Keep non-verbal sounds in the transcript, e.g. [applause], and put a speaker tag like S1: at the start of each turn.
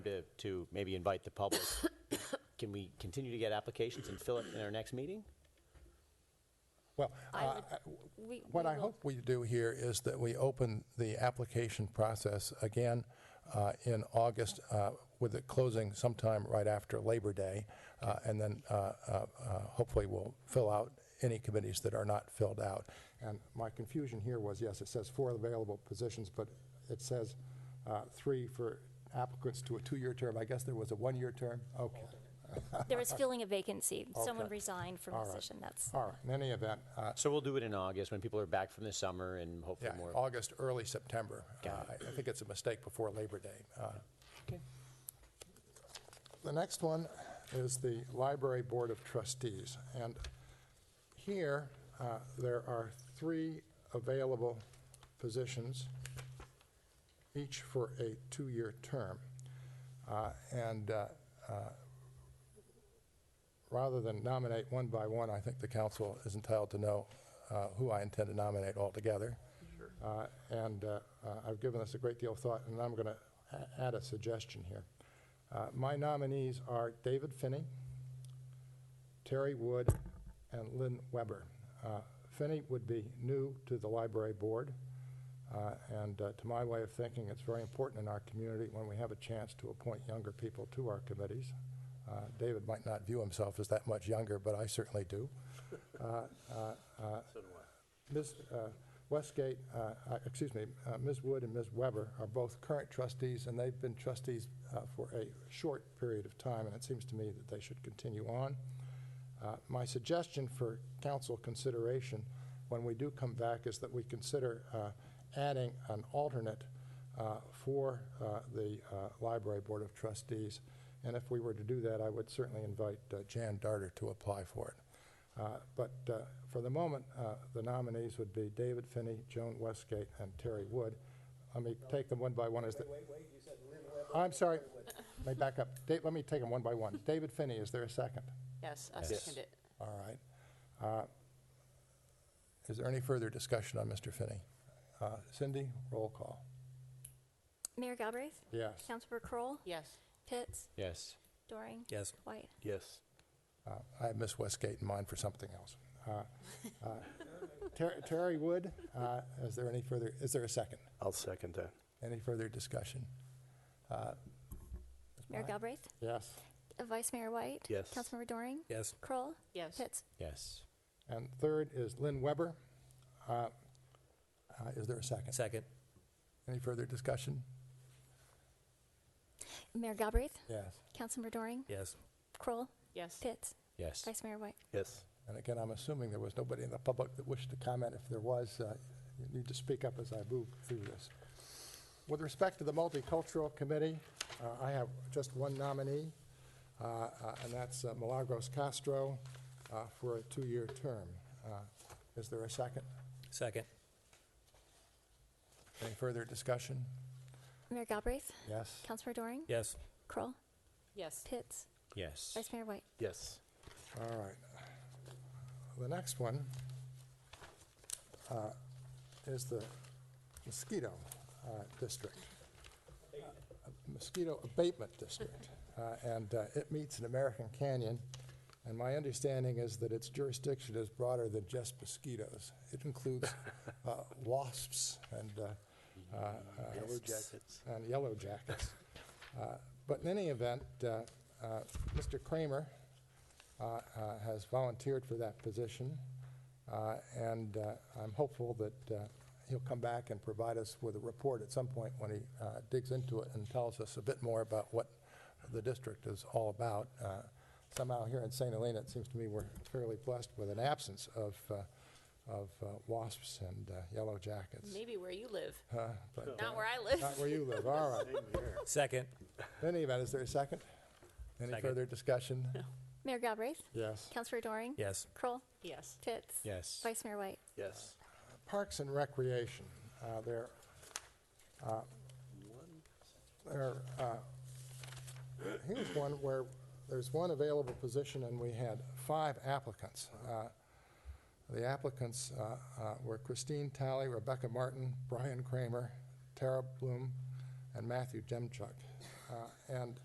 S1: to maybe invite the public, [coughs] can we continue to get applications and fill it in our next meeting?
S2: Well,
S3: I
S2: uh,
S3: would- we-
S2: what
S3: we
S2: I
S3: will-
S2: hope we do here is that we open the application process again uh, in August uh, with it closing sometime right after Labor Day. uh, And then uh, uh, uh, hopefully we'll fill out any committees that are not filled out. And my confusion here was, yes, it says four available positions, but it says uh, three for applicants to a two-year term. I guess there was a one-year term? Okay.
S3: There was filling a vacancy. Someone
S2: Okay.
S3: resigned from a position. That's,
S2: All right, in any event, uh,
S1: So we'll do it in August when people are back from the summer and hopefully
S2: yeah,
S1: more.
S2: August, early September.
S1: Got
S2: Uh, I I think it's a mistake before Labor Day. Uh,
S1: Okay.
S2: The next one is the Library Board of Trustees. And here, uh, there are three available positions, each for a two-year term. Uh, And uh, rather than nominate one by one, I think the council is entitled to know uh, who I intend to nominate altogether. Uh, And uh, uh, I've given this a great deal of thought, and I'm going to add a suggestion here. Uh, My nominees are David Finney, Terry Wood, and Lynn Weber. Uh, Finney would be new to the library board, uh, and uh, to my way of thinking, it's very important in our community when we have a chance to appoint younger people to our committees. Uh, David might not view himself as that much younger, but I certainly do. Uh, Ms. uh, Westgate, uh, uh, excuse me, uh, Ms. Wood and Ms. Weber are both current trustees, and they've been trustees uh, for a short period of time, and it seems to me that they should continue on. Uh, My suggestion for council consideration, when we do come back, is that we consider uh, adding an alternate uh, for uh, the uh, Library Board of Trustees, and if we were to do that, I would certainly invite uh, Jan Darter to apply for it. Uh, But uh, for the moment, uh, the nominees would be David Finney, Joan Westgate, and Terry Wood. Let me take them one by one as the... Wait, wait, you said Lynn Weber. I'm sorry. Let me back up. Da- Let me take them one by one. David Finney, is there a second?
S4: Yes, I second it.
S2: All right. Uh, Is there any further discussion on Mr. Finney? Uh, Cindy, roll call.
S3: Mayor Galbraith?
S2: Yes.
S3: Councilmember Kroll?
S4: Yes,
S3: Pitts?
S1: Yes.
S3: Doring?
S5: Yes.
S3: White?
S5: Yes.
S2: Uh, I have Miss Westgate in mind for something else. Uh, uh, Ter- Terry Wood, uh, is there any further, is there a second?
S5: I'll second that.
S2: Any further discussion? Uh,
S3: Mayor Galbraith?
S2: Yes.
S3: Uh, Vice Mayor White?
S5: Yes.
S3: Councilmember Doring?
S5: Yes.
S3: Kroll?
S4: yes.
S3: Pitts?
S1: Yes.
S2: And third is Lynn Weber. Uh, uh, Is there a second?
S5: Second.
S2: Any further discussion?
S3: Mayor Galbraith?
S2: Yes.
S3: Councilmember Doring?
S5: Yes.
S3: Kroll?
S4: Yes.
S3: Pitts?
S1: Yes.
S3: Vice Mayor White?
S5: Yes.
S2: And again, I'm assuming there was nobody in the public that wished to comment. If there was, uh, you need to speak up as I move through this. With respect to the Multicultural Committee, uh, I have just one nominee, uh, uh, and that's uh, Milagros Castro uh, for a two-year term. Uh, Is there a second?
S5: Second.
S2: Any further discussion?
S3: Mayor Galbraith?
S2: Yes?
S3: Councilmember Doring?
S5: Yes.
S3: Kroll?
S4: Yes.
S3: Pitts?
S1: Yes.
S3: Vice Mayor White?
S5: Yes.
S2: All right. The next one uh, is the mosquito uh, district. Uh, Mosquito abatement district. Uh, And uh, it meets in American Canyon. And my understanding is that its jurisdiction is broader than just mosquitoes. It includes uh, wasps and uh, uh, uh,
S5: Yellow jackets.
S2: and yellow jackets. Uh, But in any event, uh, uh, Mr. Kramer uh, uh, has volunteered for that position, uh, and uh, I'm hopeful that uh, he'll come back and provide us with a report at some point when he uh, digs into it and tells us a bit more about what the district is all about. Uh, Somehow here in St. Helena, it seems to me we're fairly blessed with an absence of, uh, of uh, wasps and uh, yellow jackets.
S4: Maybe where you live,
S2: Uh, but, uh,
S4: not where I live.
S2: Not where you live, all right.
S5: Second.
S2: In any event, is there a second? Any
S5: Second.
S2: further discussion?
S3: Mayor Galbraith?
S2: Yes.
S3: Councilmember Doring?
S5: Yes.
S3: Kroll?
S4: [laughs] Yes.
S3: Pitts?
S1: Yes.
S3: Vice Mayor White?
S5: Yes.
S2: Parks and Recreation, uh, there, uh, there, uh, here's one where there's one available position and we had five applicants. Uh, The applicants uh, uh, were Christine Talley, Rebecca Martin, Brian Kramer, Tara Bloom, and Matthew Demchuk. Uh, And